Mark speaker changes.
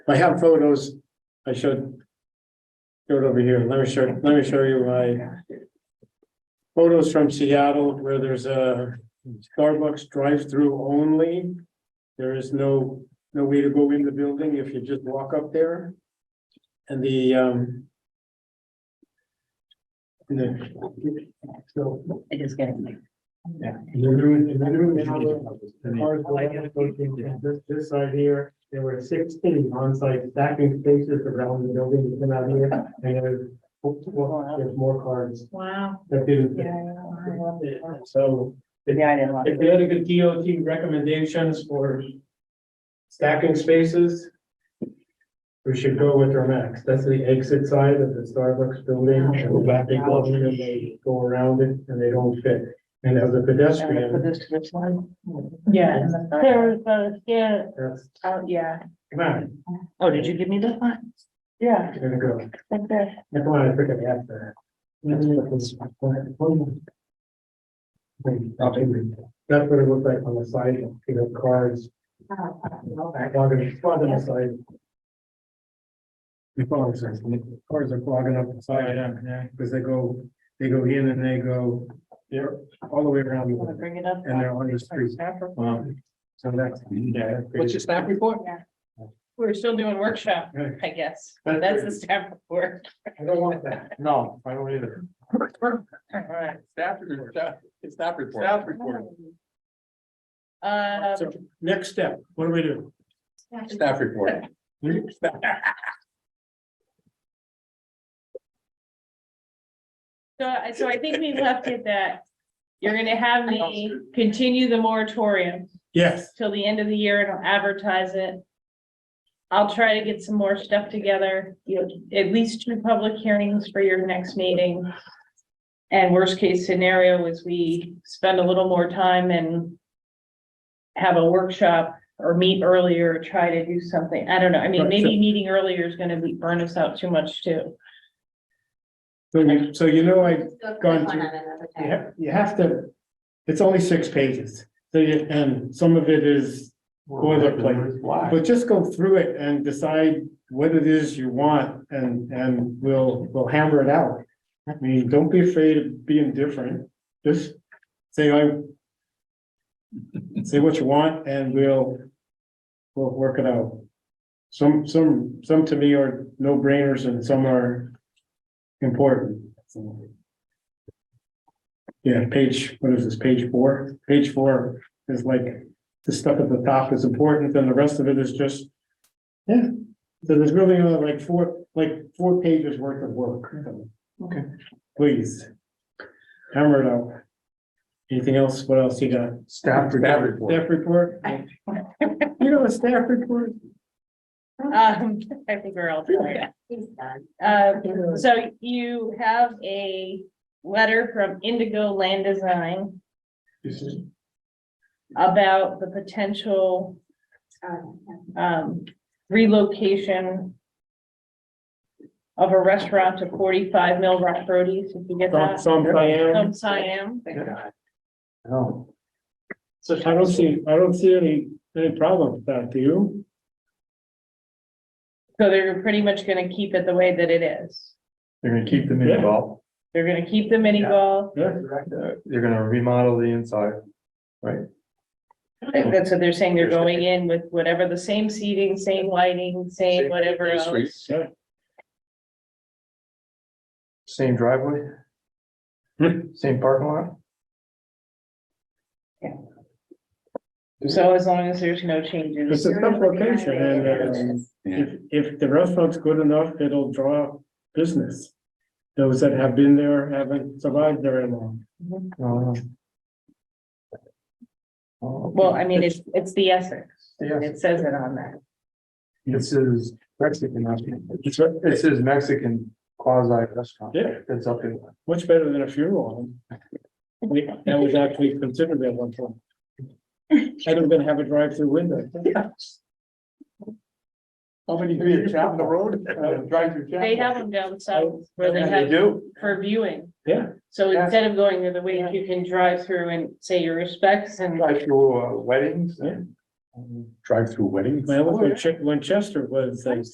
Speaker 1: I have photos. I should. Go it over here. Let me show, let me show you my. Photos from Seattle where there's a Starbucks drive-through only. There is no, no way to go in the building if you just walk up there. And the, um. and the- so,
Speaker 2: It is getting late.
Speaker 1: yeah, and they're doing, and they're doing another- the cars go down, go to This, this side here, there were sixteen on-site stacking spaces around the building, you come out here, and there's, well, there's more cars
Speaker 2: Wow.
Speaker 1: that didn't.
Speaker 2: Yeah,
Speaker 1: fit.
Speaker 2: I love it.
Speaker 1: So
Speaker 2: Yeah, I didn't love
Speaker 1: if
Speaker 2: it.
Speaker 1: they had a good DOT recommendations for stacking spaces, we should go with our max. That's the exit side of the Starbucks building. and Go back and go in and they go around it and they don't fit. And as a
Speaker 2: And then
Speaker 1: pedestrian,
Speaker 2: put this to this one.
Speaker 3: Yeah,
Speaker 2: And the-
Speaker 3: there's a, yeah,
Speaker 1: that's,
Speaker 3: oh, yeah.
Speaker 1: come on,
Speaker 2: Oh, did you give me this one?
Speaker 3: Yeah,
Speaker 1: you're gonna go.
Speaker 3: okay.
Speaker 1: Never mind, I forgot to ask that. That's what it was- That's what it looked like on the side, you know, cars. Clogging, it's clogging the side. You follow what I'm saying? Cars are clogging up the side, yeah, because they go, they go in and they go, they're all the way around,
Speaker 2: Want to
Speaker 1: and
Speaker 2: bring it up?
Speaker 1: they're on the street. Um, So that's.
Speaker 4: What's your staff report?
Speaker 3: We're still doing workshop, I guess.
Speaker 1: That's
Speaker 3: That's
Speaker 1: good.
Speaker 3: the staff report.
Speaker 1: I don't want that. No, I don't either.
Speaker 3: Alright.
Speaker 4: Staff report, staff, it's staff report.
Speaker 1: Staff report.
Speaker 3: Um,
Speaker 1: So next step, what do we do? Hmm?
Speaker 4: Staff report.
Speaker 3: so I, so I think we left it that you're gonna have me continue the moratorium
Speaker 1: Yes.
Speaker 3: till the end of the year and I'll advertise it. I'll try to get some more stuff together, you know, at least two public hearings for your next meeting. And worst case scenario is we spend a little more time and have a workshop or meet earlier, try to do something. I don't know. I mean,
Speaker 1: Right, so-
Speaker 3: maybe meeting earlier is gonna be, burn us out too much too.
Speaker 1: So you, so you know, I, Gone
Speaker 5: One
Speaker 1: through.
Speaker 5: of them,
Speaker 1: you
Speaker 5: okay.
Speaker 1: have, you have to, it's only six pages. So you, and some of it is, Boilerplate.
Speaker 4: Why?
Speaker 1: but just go through it and decide what it is you want and, and we'll, we'll hammer it out. I mean, don't be afraid of being different. Just say, I say what you want and we'll, we'll work it out. Some, some, some to me are no brainers and some are important. Yeah, page, what is this, page four? Page four is like, the stuff at the top is important, then the rest of it is just. Yeah, so there's really only like four, like four pages worth of work.
Speaker 4: Okay.
Speaker 1: Please. Hammer it out. Anything else? What else you got?
Speaker 4: Staff report.
Speaker 1: Staff report? You know, a staff report?
Speaker 3: Um, I think we're all tired.
Speaker 5: He's done.
Speaker 3: Uh, so you have a letter from Indigo Land Design
Speaker 1: This is-
Speaker 3: about the potential uh,
Speaker 5: Um, yeah.
Speaker 3: um relocation of a restaurant to forty-five Mill Rock Roadies, if you get
Speaker 1: Some,
Speaker 3: that.
Speaker 1: some Diane.
Speaker 3: Some Siam.
Speaker 1: No. So I don't see, I don't see any, any problem with that, do you?
Speaker 3: So they're pretty much gonna keep it the way that it is.
Speaker 6: They're gonna keep the
Speaker 1: Yeah.
Speaker 6: mini golf,
Speaker 3: They're gonna keep the mini
Speaker 6: Yeah.
Speaker 3: golf.
Speaker 1: Yeah.
Speaker 6: uh, they're gonna remodel the inside.
Speaker 3: That's what they're saying. They're going in with whatever, the same seating, same lighting, same
Speaker 4: Same
Speaker 3: whatever
Speaker 4: Same
Speaker 3: else.
Speaker 4: suites.
Speaker 1: Yeah.
Speaker 6: Same driveway?
Speaker 1: Hmm.
Speaker 6: Same parking lot?
Speaker 3: So as long as there's no
Speaker 1: It's
Speaker 3: changes.
Speaker 1: a tough location and, um,
Speaker 4: Yeah.
Speaker 1: If, if the restaurant's good enough, it'll draw business. Those that have been there haven't survived very long.
Speaker 6: No, Oh,
Speaker 3: Well,
Speaker 6: Well,
Speaker 3: I mean, it's, it's the Essex.
Speaker 6: Yeah.
Speaker 3: It says it on that.
Speaker 6: This is Mexican, I think.
Speaker 1: It's, re-
Speaker 6: this is Mexican quasi restaurant.
Speaker 1: yeah,
Speaker 6: It's up in,
Speaker 1: much better than a funeral home. We, that was actually considered at one point. I don't even have a drive-through window.
Speaker 4: How many do you chop in the road? Uh, Drive through chop?
Speaker 3: They have them down south where they
Speaker 4: Oh, They
Speaker 3: have
Speaker 4: do?
Speaker 3: for viewing.
Speaker 1: Yeah.
Speaker 3: So
Speaker 4: Yeah.
Speaker 3: instead of going the other way, you can drive through and say your respects and
Speaker 6: drive through uh, weddings and Drive-through wedding.
Speaker 1: My old Winchester was like